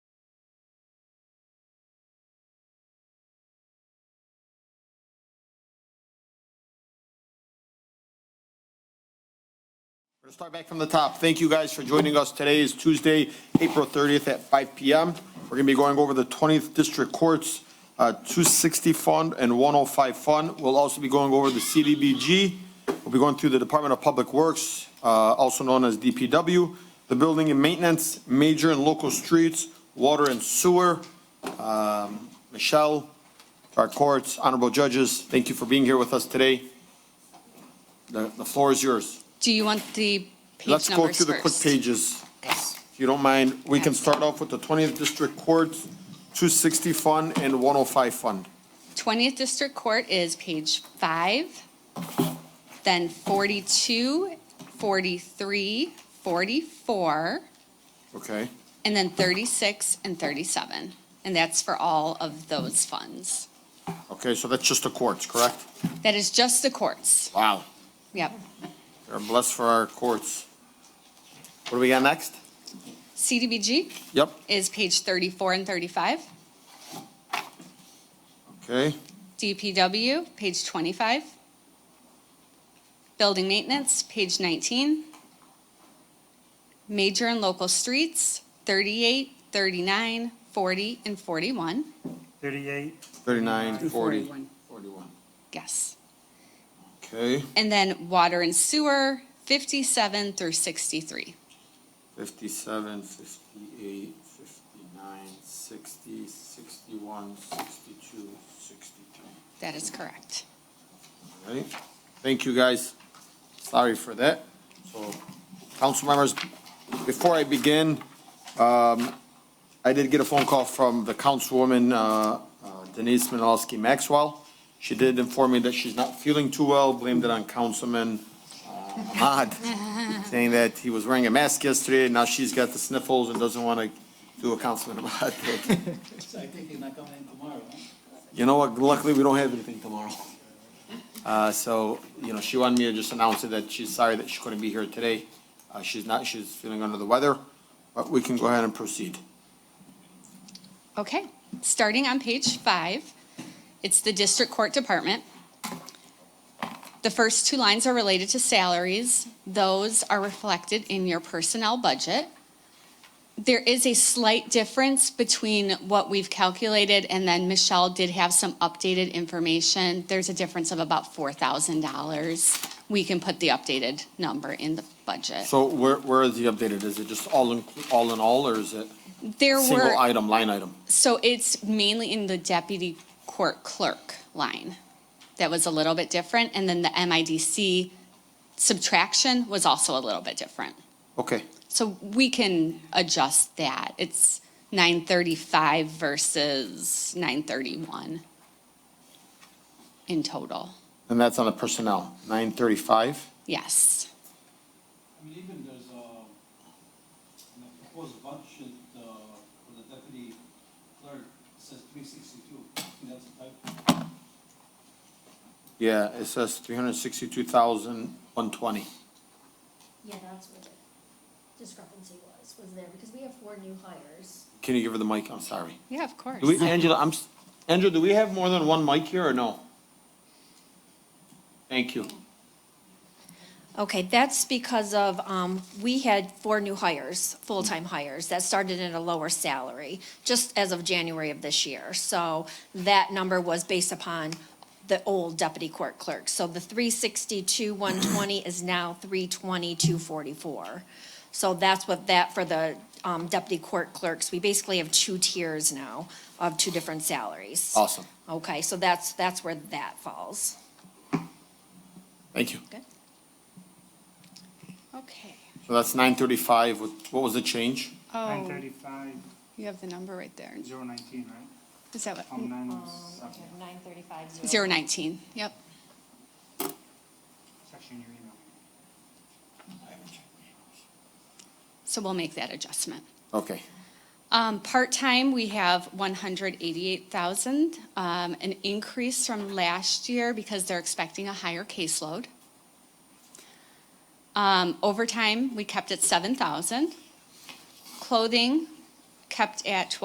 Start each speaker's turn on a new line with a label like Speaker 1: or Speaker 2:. Speaker 1: We'll Start back from the top. Thank you guys for joining us. Today is Tuesday, April 30th at 5 PM. We're going to be going over the 20th District Court's uh, 260 Fund and 105 Fund. We'll also be going over the CDBG. We'll be going through the Department of Public Works, uh, also known as DPW, the Building and Maintenance, Major and Local Streets, Water and Sewer. Um, Michelle, to our courts, honorable judges, thank you for being here with us today. The the floor is yours.
Speaker 2: Do you want the
Speaker 1: Let's
Speaker 2: page
Speaker 1: go
Speaker 2: numbers
Speaker 1: through the quick
Speaker 2: first?
Speaker 1: pages, if you don't mind. We can start off with the 20th District Court, 260 Fund and 105 Fund.
Speaker 2: 20th District Court is page five, then 42, 43, 44,
Speaker 1: Okay,
Speaker 2: and then 36 and 37. And that's for all of those funds.
Speaker 1: okay, so that's just the courts, correct?
Speaker 2: That is just the courts.
Speaker 1: Wow.
Speaker 2: Yep.
Speaker 1: They're blessed for our courts. What do we got next?
Speaker 2: CDBG
Speaker 1: Yep,
Speaker 2: is page 34 and 35.
Speaker 1: okay,
Speaker 2: DPW, page 25. Building maintenance, page 19. Major and local streets, 38, 39, 40, and 41.
Speaker 3: 38,
Speaker 1: 39, 40,
Speaker 4: 41.
Speaker 1: 41.
Speaker 2: Yes.
Speaker 1: Okay,
Speaker 2: And then water and sewer, 57 through 63.
Speaker 1: 57, 58, 59, 60, 61, 62, 63.
Speaker 2: That is correct.
Speaker 1: Right. Thank you, guys. Sorry for that. So, council members, before I begin, um, I did get a phone call from the councilwoman, uh, uh, Denise Manalowski Maxwell. She did inform me that she's not feeling too well, blamed it on Councilman, uh, Ahmad, saying that he was wearing a mask yesterday, and now she's got the sniffles and doesn't want to do a Councilman Ahmad thing.
Speaker 4: So I think he's not coming in tomorrow, huh?
Speaker 1: You know what, luckily, we don't have anything tomorrow. Uh, so, you know, she wanted me to just announce it that she's sorry that she couldn't be here today. Uh, she's not, she's feeling under the weather, but we can go ahead and proceed.
Speaker 2: Okay, starting on page five, it's the District Court Department. The first two lines are related to salaries. Those are reflected in your personnel budget. There is a slight difference between what we've calculated, and then Michelle did have some updated information. There's a difference of about $4,000. We can put the updated number in the budget.
Speaker 1: So where, where is the updated? Is it just all in, all in all, or is it
Speaker 2: There were.
Speaker 1: single item, line item?
Speaker 2: So it's mainly in the deputy court clerk line that was a little bit different, and then the MIDC subtraction was also a little bit different.
Speaker 1: Okay,
Speaker 2: So we can adjust that. It's nine thirty-five versus nine thirty-one in total.
Speaker 1: and that's on the personnel, nine thirty-five?
Speaker 2: Yes,
Speaker 5: I mean, even there's uh, a, in the proposed budget, uh, for the deputy clerk, it says three sixty-two, I think that's a typo.
Speaker 1: Yeah, it says three hundred sixty-two thousand, one twenty.
Speaker 6: Yeah, that's what the discrepancy was, was there, because we have four new hires.
Speaker 1: Can you give her the mic? I'm sorry.
Speaker 2: yeah, of course.
Speaker 1: Do we, Angela, I'm, s- Angela, do we have more than one mic here or no? Thank you.
Speaker 6: Okay, that's because of, um, we had four new hires, full-time hires, that started at a lower salary, just as of January of this year. So that number was based upon the old deputy court clerk. So the three sixty-two, one twenty is now three twenty, two forty-four. So that's what that, for the, um, deputy court clerks, we basically have two tiers now of two different salaries.
Speaker 1: Awesome.
Speaker 6: Okay, so that's, that's where that falls.
Speaker 1: Thank you.
Speaker 2: Okay.
Speaker 1: So that's nine thirty-five. What, what was the change?
Speaker 3: nine
Speaker 2: Oh,
Speaker 3: thirty-five,
Speaker 2: you have the number right there.
Speaker 3: zero nineteen, right?
Speaker 2: Is that
Speaker 3: From
Speaker 2: what?
Speaker 3: nine oh seven,
Speaker 6: Nine thirty-five,
Speaker 2: Zero nineteen, yep.
Speaker 3: section your email.
Speaker 2: So we'll make that adjustment.
Speaker 1: Okay,
Speaker 2: Um, part-time, we have one hundred eighty-eight thousand, um, an increase from last year because they're expecting a higher caseload. Um, overtime, we kept at seven thousand. Clothing, kept at twelve.